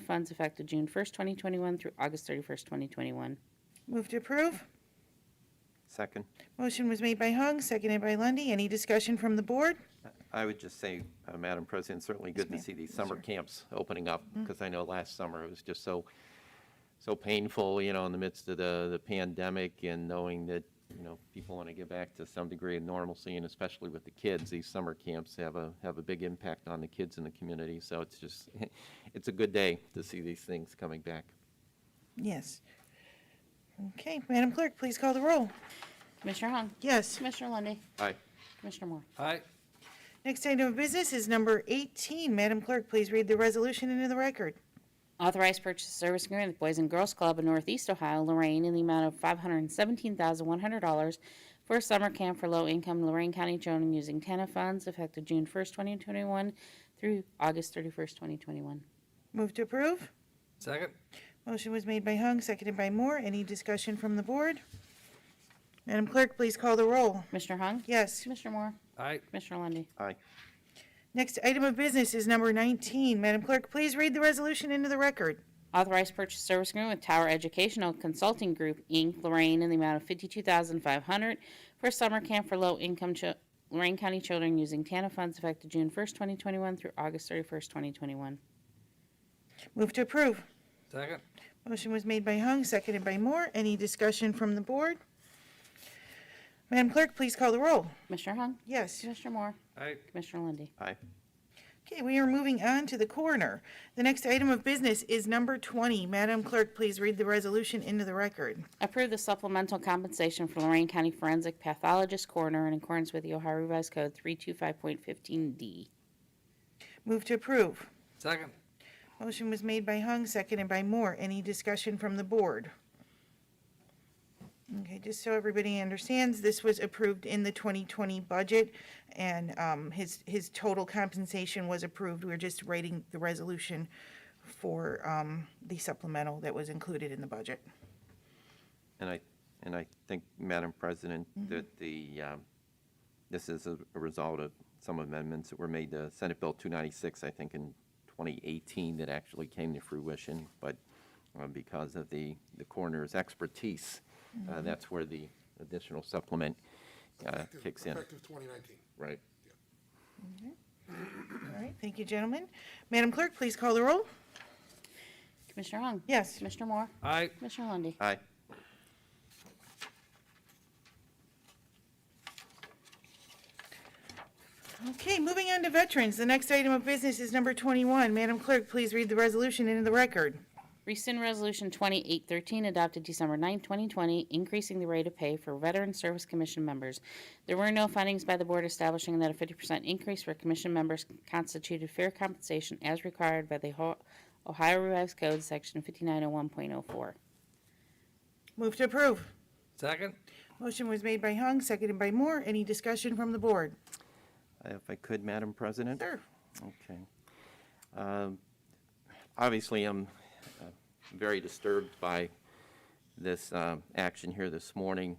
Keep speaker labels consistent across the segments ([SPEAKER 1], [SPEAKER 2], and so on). [SPEAKER 1] funds effective June 1st, 2021 through August 31st, 2021.
[SPEAKER 2] Move to approve.
[SPEAKER 3] Second.
[SPEAKER 2] Motion was made by Hung, seconded by Lundy. Any discussion from the board?
[SPEAKER 3] I would just say, uh, Madam President, certainly good to
[SPEAKER 2] ma'am.
[SPEAKER 3] see these summer
[SPEAKER 2] Sure.
[SPEAKER 3] camps opening up, because I know last summer it was just so, so painful, you know, in the midst of the, the pandemic and knowing that, you know, people want to get back to some degree of normalcy, and especially with the kids, these summer camps have a, have a big impact on the kids in the community, so it's just, it's a good day to see these things coming back.
[SPEAKER 2] Yes. Okay, Madam Clerk, please call the roll.
[SPEAKER 1] Commissioner Hung?
[SPEAKER 2] Yes.
[SPEAKER 1] Commissioner Lundy,
[SPEAKER 3] Aye.
[SPEAKER 1] Commissioner Moore?
[SPEAKER 4] aye,
[SPEAKER 2] Next item of business is number 18. Madam Clerk, please read the resolution into the record.
[SPEAKER 1] Authorized purchase of service agreement with Boys and Girls Club of Northeast Ohio, Lorraine, in the amount of $517,100 for a summer camp for low-income Lorraine County children using TANF funds effective June 1st, 2021 through August 31st, 2021.
[SPEAKER 2] Move to approve.
[SPEAKER 4] second,
[SPEAKER 2] Motion was made by Hung, seconded by Moore. Any discussion from the board? Madam Clerk, please call the roll.
[SPEAKER 1] Commissioner Hung?
[SPEAKER 2] Yes.
[SPEAKER 1] Commissioner Moore?
[SPEAKER 4] aye,
[SPEAKER 1] Commissioner Lundy,
[SPEAKER 3] Aye.
[SPEAKER 2] Next item of business is number 19. Madam Clerk, please read the resolution into the record.
[SPEAKER 1] Authorized purchase service agreement with Tower Educational Consulting Group, Inc., Lorraine, in the amount of $52,500 for a summer camp for low-income chil- Lorraine County children using TANF funds effective June 1st, 2021 through August 31st, 2021.
[SPEAKER 2] Move to approve.
[SPEAKER 4] second,
[SPEAKER 2] Motion was made by Hung, seconded by Moore. Any discussion from the board? Madam Clerk, please call the roll.
[SPEAKER 1] Commissioner Hung?
[SPEAKER 2] Yes.
[SPEAKER 1] Commissioner Moore?
[SPEAKER 4] aye,
[SPEAKER 1] Commissioner Lundy,
[SPEAKER 3] Aye.
[SPEAKER 2] Okay, we are moving on to the coroner. The next item of business is number 20. Madam Clerk, please read the resolution into the record.
[SPEAKER 1] Approve the supplemental compensation for Lorraine County Forensic Pathologist Coroner in accordance with the Ohio Revised Code 325.15D.
[SPEAKER 2] Move to approve.
[SPEAKER 4] second,
[SPEAKER 2] Motion was made by Hung, seconded by Moore. Any discussion from the board? Okay, just so everybody understands, this was approved in the 2020 budget, and um, his, his total compensation was approved. We're just writing the resolution for um, the supplemental that was included in the budget.
[SPEAKER 3] And I, and I think, Madam President, that the, um, this is a a result of some amendments that were made to Senate Bill 296, I think, in 2018 that actually came to fruition. But uh, because of the, the coroner's expertise, uh, that's where the additional supplement uh,
[SPEAKER 5] Effective-
[SPEAKER 3] kicks in.
[SPEAKER 5] Effective 2019.
[SPEAKER 3] Right.
[SPEAKER 2] All right, thank you, gentlemen. Madam Clerk, please call the roll.
[SPEAKER 1] Commissioner Hung?
[SPEAKER 2] Yes.
[SPEAKER 1] Commissioner Moore?
[SPEAKER 4] aye,
[SPEAKER 1] Commissioner Lundy,
[SPEAKER 3] Aye.
[SPEAKER 2] Okay, moving on to veterans. The next item of business is number 21. Madam Clerk, please read the resolution into the record.
[SPEAKER 1] Rescind Resolution 2813 adopted December 9, 2020, increasing the rate of pay for Veteran Service Commission members. There were no findings by the board establishing that a 50% increase for commission members constituted fair compensation as required by the Ho- Ohio Revised Code, Section 5901.04.
[SPEAKER 2] Move to approve.
[SPEAKER 4] second,
[SPEAKER 2] Motion was made by Hung, seconded by Moore. Any discussion from the board?
[SPEAKER 3] If I could, Madam President?
[SPEAKER 2] Sure.
[SPEAKER 3] Okay. Um, Obviously, I'm uh, very disturbed by this um, action here this morning.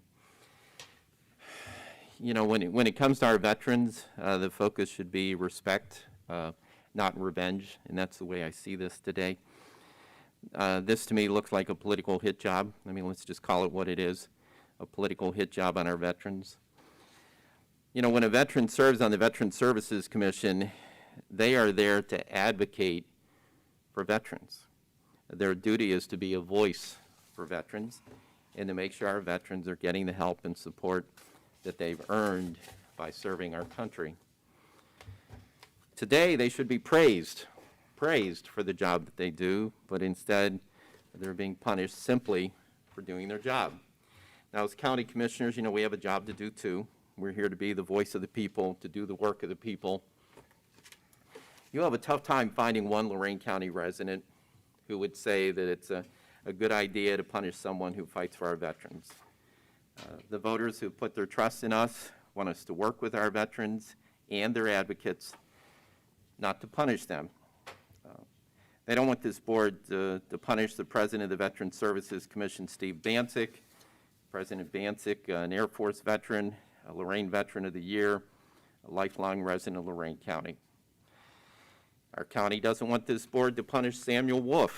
[SPEAKER 3] You know, when it, when it comes to our veterans, uh, the focus should be respect, uh, not revenge, and that's the way I see this today. Uh, This, to me, looks like a political hit job. I mean, let's just call it what it is, a political hit job on our veterans. You know, when a veteran serves on the Veteran Services Commission, they are there to advocate for veterans. Their duty is to be a voice for veterans and to make sure our veterans are getting the help and support that they've earned by serving our country. Today, they should be praised, praised for the job that they do, but instead, they're being punished simply for doing their job. Now, as county commissioners, you know, we have a job to do too. We're here to be the voice of the people, to do the work of the people. You'll have a tough time finding one Lorraine County resident who would say that it's a, a good idea to punish someone who fights for our veterans. Uh, The voters who put their trust in us want us to work with our veterans and their advocates, not to punish them. Uh, They don't want this board to, to punish the president of the Veteran Services Commission, Steve Bancek, President Bancek, an Air Force veteran, a Lorraine Veteran of the Year, a lifelong resident of Lorraine County. Our county doesn't want this board to punish Samuel Wolf,